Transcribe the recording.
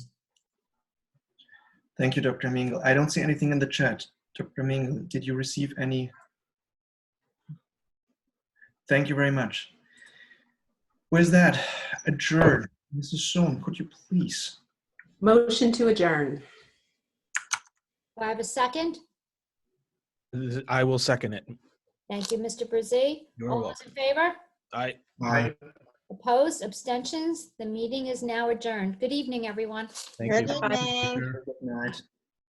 Thank you, Dr. Mingle. I don't see anything in the chat. Dr. Mingle, did you receive any? Thank you very much. Where's that? Adjourn. Mrs. Schoen, could you please? Motion to adjourn. Do I have a second? I will second it. Thank you, Mr. Brzee. You're All those in favor? I, Aye. Opposed, abstentions? The meeting is now adjourned. Good evening, everyone. thank you. Good evening. Good night.